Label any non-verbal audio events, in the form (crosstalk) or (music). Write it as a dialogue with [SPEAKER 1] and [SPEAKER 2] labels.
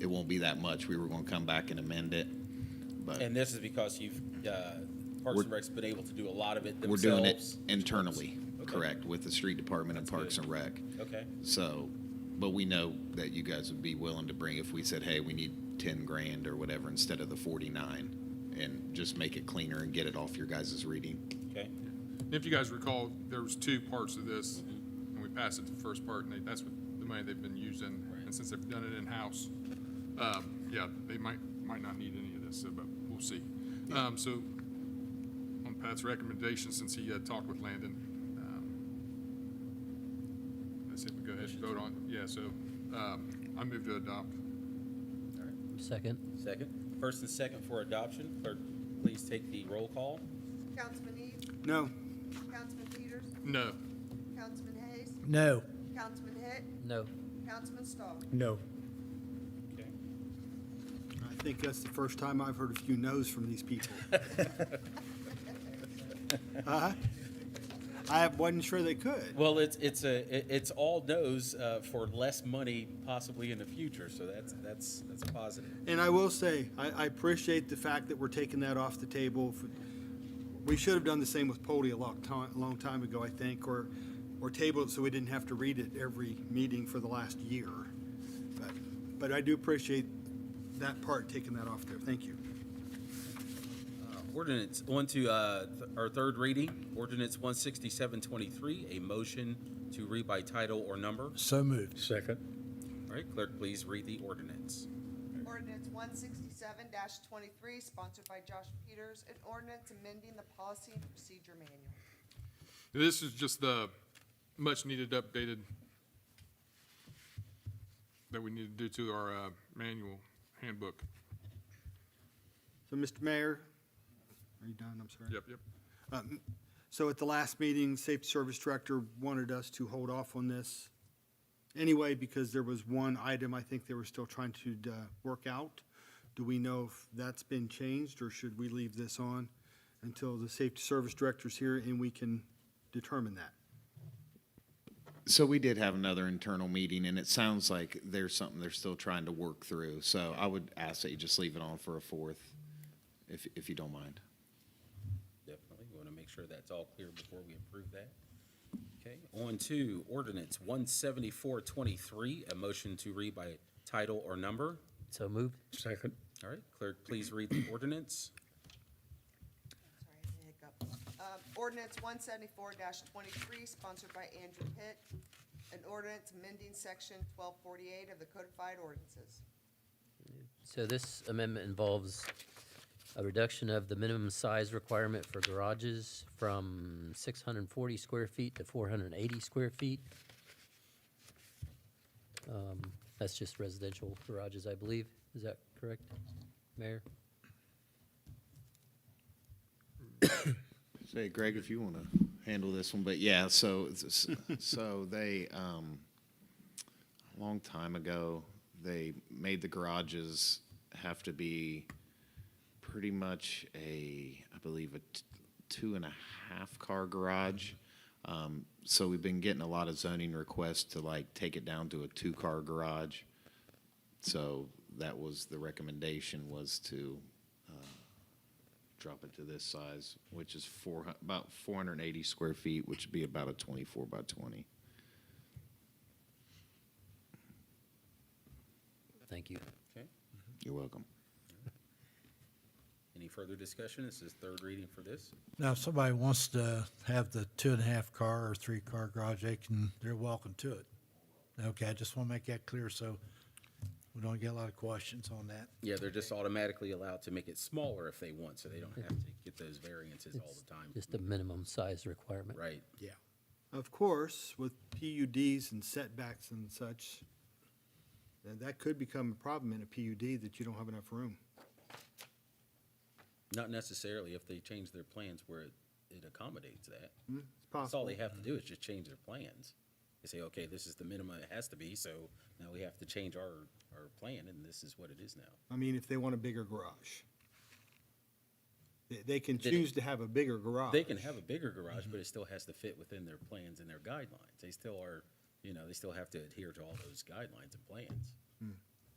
[SPEAKER 1] it won't be that much. We were gonna come back and amend it, but
[SPEAKER 2] And this is because you've, uh, Parks and
[SPEAKER 1] We're-
[SPEAKER 2] Rec's been able to do a lot of it
[SPEAKER 1] we're doing it
[SPEAKER 2] themselves.
[SPEAKER 1] internally,
[SPEAKER 2] Okay.
[SPEAKER 1] correct, with the street department and
[SPEAKER 2] That's
[SPEAKER 1] Parks
[SPEAKER 2] good.
[SPEAKER 1] and Rec.
[SPEAKER 2] Okay,
[SPEAKER 1] So, but we know that you guys would be willing to bring if we said, hey, we need ten grand or whatever instead of the forty-nine. And just make it cleaner and get it off your guys' reading.
[SPEAKER 2] okay.
[SPEAKER 3] If you guys recall, there was two parts of this, and we passed it the first part, and they- that's what the money they've been using, and since they've done it in-house, um, yeah, they might, might not need any of this, so, but we'll see. Um, so, on Pat's recommendation, since he had talked with Landon, um, I said we go ahead and vote on, yeah, so, um, I move to adopt.
[SPEAKER 2] All right.
[SPEAKER 4] Second.
[SPEAKER 2] Second, first and second for adoption. Clerk, please take the roll call.
[SPEAKER 5] Councilman Eads,
[SPEAKER 6] No.
[SPEAKER 5] Councilman Peters,
[SPEAKER 3] No,
[SPEAKER 5] Councilman Hayes,
[SPEAKER 6] No.
[SPEAKER 5] Councilman Hitt,
[SPEAKER 4] No.
[SPEAKER 5] Councilman Stahl.
[SPEAKER 6] No.
[SPEAKER 2] Okay.
[SPEAKER 6] I think that's the first time I've heard a few no's from these people. Uh-huh. I wasn't sure they could.
[SPEAKER 2] Well, it's, it's a, it- it's all no's, uh, for less money possibly in the future, so that's, that's, that's a positive.
[SPEAKER 6] And I will say, I, I appreciate the fact that we're taking that off the table. for- We should have done the same with Poli a long time, long time ago, I think, or, or tabled it so we didn't have to read it every meeting for the last year. But, but I do appreciate that part, taking that off there. Thank you.
[SPEAKER 2] Uh, Ordinance, on to, uh, th- our third reading, ordinance one sixty-seven twenty-three, a motion to read by title or number.
[SPEAKER 7] So moved. Second.
[SPEAKER 2] All right, clerk, please read the ordinance.
[SPEAKER 5] Ordinance one sixty-seven twenty-three, sponsored by Josh Peters, an ordinance amending the policy and procedure manual.
[SPEAKER 3] this is just the much-needed updated that we need to do to our uh, manual handbook.
[SPEAKER 6] So, Mr. Mayor, are you done? I'm sorry.
[SPEAKER 3] Yep, yep.
[SPEAKER 6] Um, So at the last meeting, Safety Service Director wanted us to hold off on this anyway because there was one item I think they were still trying to uh, work out. Do we know if that's been changed or should we leave this on until the Safety Service Director's here and we can determine that?
[SPEAKER 1] So we did have another internal meeting and it sounds like there's something they're still trying to work through. So I would ask that you just leave it on for a fourth, if, if you don't mind.
[SPEAKER 2] Definitely, we want to make sure that's all clear before we approve that. Okay, on to ordinance one seventy-four twenty-three, a motion to read by title or number.
[SPEAKER 4] So moved.
[SPEAKER 7] Second.
[SPEAKER 2] All right, clerk, please read the ordinance.
[SPEAKER 5] Sorry, I had a hiccup. Um, Ordinance one seventy-four twenty-three, sponsored by Andrew Pitt, an ordinance amending section twelve forty-eight of the codified ordinances.
[SPEAKER 4] So this amendment involves a reduction of the minimum size requirement for garages from 640 square feet to 480 square feet. Um, That's just residential garages, I believe. Is that correct, Mayor?
[SPEAKER 1] Say, Greg, if you want to handle this one, but yeah, so, (laughs) it's- so they, um, a long time ago, they made the garages have to be pretty much a, I believe, a t- two and a half car garage. Um, so we've been getting a lot of zoning requests to like take it down to a two car garage. So that was the recommendation was to drop it to this size, which is four, hu- about 480 square feet, which would be about a 24 by 20.
[SPEAKER 4] Thank you.
[SPEAKER 2] Okay,
[SPEAKER 1] You're welcome.
[SPEAKER 2] any further discussion? This is third reading for this.
[SPEAKER 7] Now, if somebody wants to have the two and a half car or three car garage, they can, they're welcome to it. Okay, I just want to make that clear so we don't get a lot of questions on that.
[SPEAKER 2] Yeah, they're just automatically allowed to make it smaller if they want, so they don't have to get those variances all the time.
[SPEAKER 4] Just a minimum size requirement.
[SPEAKER 2] Right,
[SPEAKER 7] Yeah.
[SPEAKER 6] Of course, with PUDs and setbacks and such, then that could become a problem in a PUD that you don't have enough room.
[SPEAKER 2] not necessarily if they change their plans where it it accommodates that.
[SPEAKER 6] It's
[SPEAKER 2] That's all
[SPEAKER 6] possible.
[SPEAKER 2] they have to do is just change their plans. They say, okay, this is the minimum it has to be, so now we have to change our, our plan, and this is what it is now.
[SPEAKER 6] I mean, if they want a bigger garage. They, they can
[SPEAKER 2] Did it-
[SPEAKER 6] choose to have a bigger garage.
[SPEAKER 2] They can have a bigger garage, but it still has to fit within their plans and their guidelines. They still are, you know, they still have to adhere to all those guidelines and plans.